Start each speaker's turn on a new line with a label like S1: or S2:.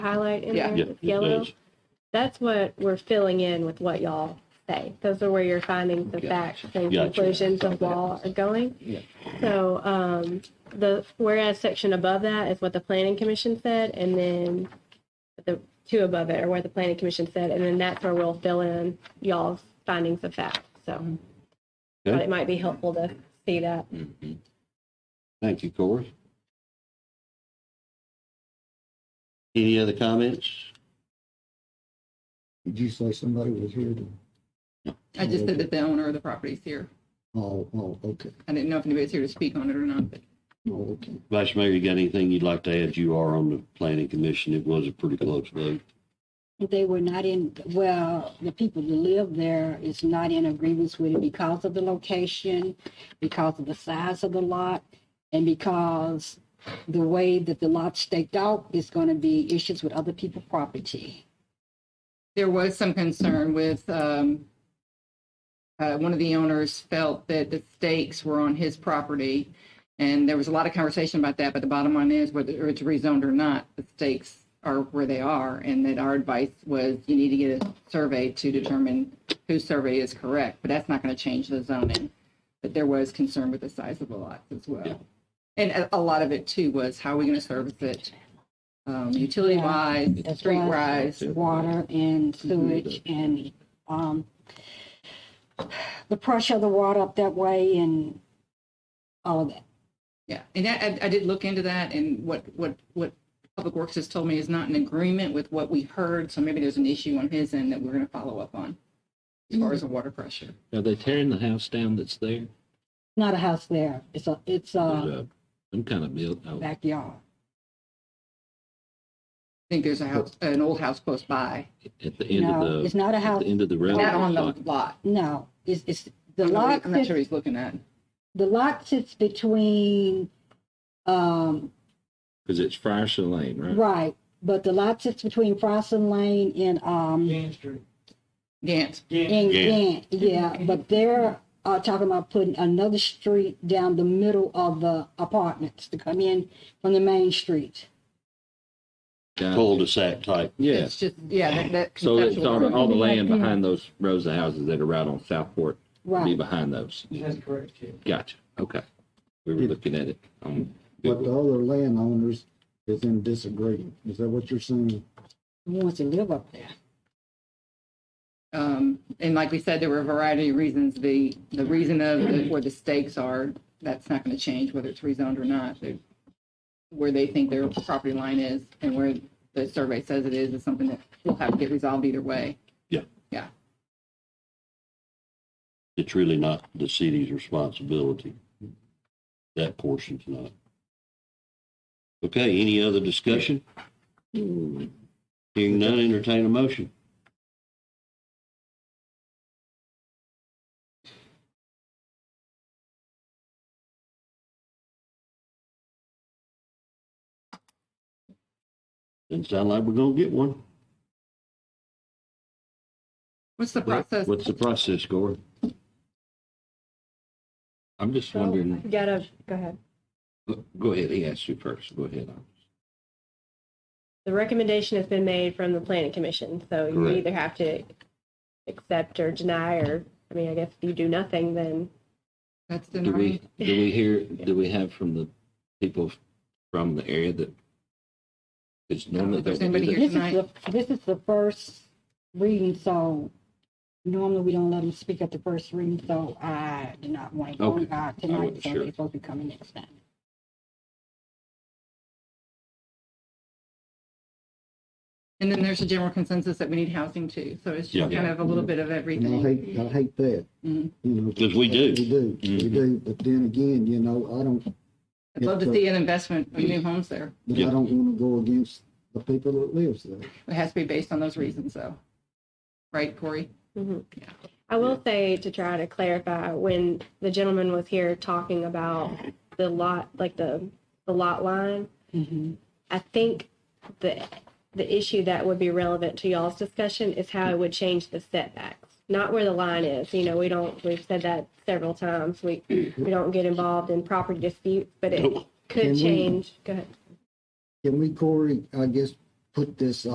S1: highlight in
S2: Yeah.
S1: there
S3: Yeah,
S1: with
S3: it
S1: yellow.
S3: does.
S1: That's what we're filling in with what y'all say. Those are where your findings of facts and
S3: Gotcha.
S1: conclusions of law are going.
S2: Yeah.
S1: So um, the whereas section above that is what the planning commission said, and then the two above it are where the planning commission said, and then that's where we'll fill in y'all's findings of fact. So thought
S3: Okay.
S1: it might be helpful to see that.
S2: Mhm.
S3: Thank you, Corey. Any other comments?
S4: Did you say somebody was here to,
S2: I just said that the owner of the property is here.
S4: oh, oh, okay,
S2: I didn't know if anybody's here to speak on it or not, but
S4: oh, okay.
S3: Vice Mayor, you got anything you'd like to add? You are on the planning commission. It was a pretty close vote.
S5: They were not in, well, the people who live there is not in agreement with it because of the location, because of the size of the lot, and because the way that the lot staked out is going to be issues with other people's property.
S2: there was some concern with, um, uh, one of the owners felt that the stakes were on his property. And there was a lot of conversation about that, but the bottom line is whether it's rezoned or not, the stakes are where they are. And that our advice was you need to get a survey to determine whose survey is correct, but that's not going to change the zoning. But there was concern with the size of the lots as
S3: Yeah.
S2: well. And a, a lot of it too was how are we going to service it? Um, utility wise,
S5: As
S2: street
S5: well
S2: wise.
S5: as Water and sewage
S6: Mm-hmm.
S5: and, um, the pressure of the water up that way and all of that.
S2: Yeah, and I, I- I did look into that, and what, what, what Public Works has told me is not in agreement with what we heard, so maybe there's an issue on his end that we're gonna follow up on as far
S6: Mm-hmm.
S2: as the water pressure.
S6: Are they tearing the house down that's there?
S5: Not a house there. It's a, it's a
S6: There's a- Some kind of build, oh,
S5: backyard.
S2: I think there's a house, an old house close by,
S6: at the end
S5: No,
S6: of
S5: it's
S6: the,
S5: not a
S6: at
S5: house.
S6: the end of the road.
S2: not on the lot.
S5: No, it's, it's, the
S2: I'm not-
S5: lot
S2: I'm not sure
S5: sits,
S2: he's looking at.
S5: the lot sits between, um,
S6: Because it's Friarson Lane,
S3: Hmm?
S6: right?
S5: right, but the lot sits between Frosson Lane and, um,
S7: Jane Street.
S2: Gant,
S5: and
S3: Yeah.
S5: Gant, yeah, but they're, uh, talking about putting another street down the middle of the apartments to come in from the main street.
S6: Got it.
S3: Cul-de-sac type.
S6: Yeah,
S2: it's just, yeah, that, that.
S6: so it's all, the- all the land
S5: Yeah.
S6: behind those rows of houses that are right on Southport, will be
S5: Right,
S6: behind those.
S7: That's correct, yeah.
S6: Gotcha, okay. We were looking at it. Um,
S4: But the other landowners is in disagreement. Is that what you're saying?
S5: who wants to live up there?
S2: Um, and like we said, there were a variety of reasons, the, the reason of the- where the stakes are, that's not gonna change whether it's rezoned or not. They- Where they think their property line is and where the survey says it is, is something that will have to get resolved either way.
S3: It's really not the city's responsibility. That portion's not. Okay, any other discussion? Hearing none, entertain a motion. Doesn't sound like we're gonna get one.
S2: What's the process?
S3: What's the process, Gore?
S6: I'm just wondering,
S1: You gotta go ahead.
S6: go- go ahead, he asked you first, go ahead.
S1: The recommendation has been made from the planning commission, so you
S3: Correct.
S1: either have to accept or deny, or, I mean, I guess if you do nothing, then
S2: That's
S6: Do we,
S2: denying,
S6: do we hear, do we have from the people from the area that? It's normally.
S2: if there's
S6: don't we do
S2: anybody
S6: that?
S2: here
S5: This is the, this is the first reading, so normally we don't let them speak at the first reading, so I do not want to go on
S6: Okay.
S5: guard
S6: I
S5: tonight,
S6: wasn't
S5: so
S6: sure.
S5: they're supposed to be coming next time.
S2: and then there's a general consensus that we need housing too, so it's just
S3: Yeah.
S2: kind of a little bit of
S4: And I
S2: everything.
S4: hate, I hate that,
S2: Mhm.
S4: you know.
S3: 'Cause we do. Mm-hmm.
S4: We do, we do, but then again, you know, I don't,
S2: I'd love to see an investment of new homes there.
S4: but
S3: Yeah.
S4: I don't wanna go against the people that lives there.
S2: It has to be based on those reasons though. Right, Corey?
S4: Mm-hmm.
S1: Mhm.
S2: Yeah.
S1: I will say to try to clarify when the gentleman was here talking about the lot, like the the lot line.
S4: Mm-hmm.
S5: Mhm.
S1: I think the the issue that would be relevant to y'all's discussion is how it would change the setbacks, not where the line is. You know, we don't. We've said that several times. We we don't get involved in property disputes, but it
S3: Nope.
S1: could
S4: Can we-
S1: change. Go ahead.
S4: Can we, Corey, I guess, put this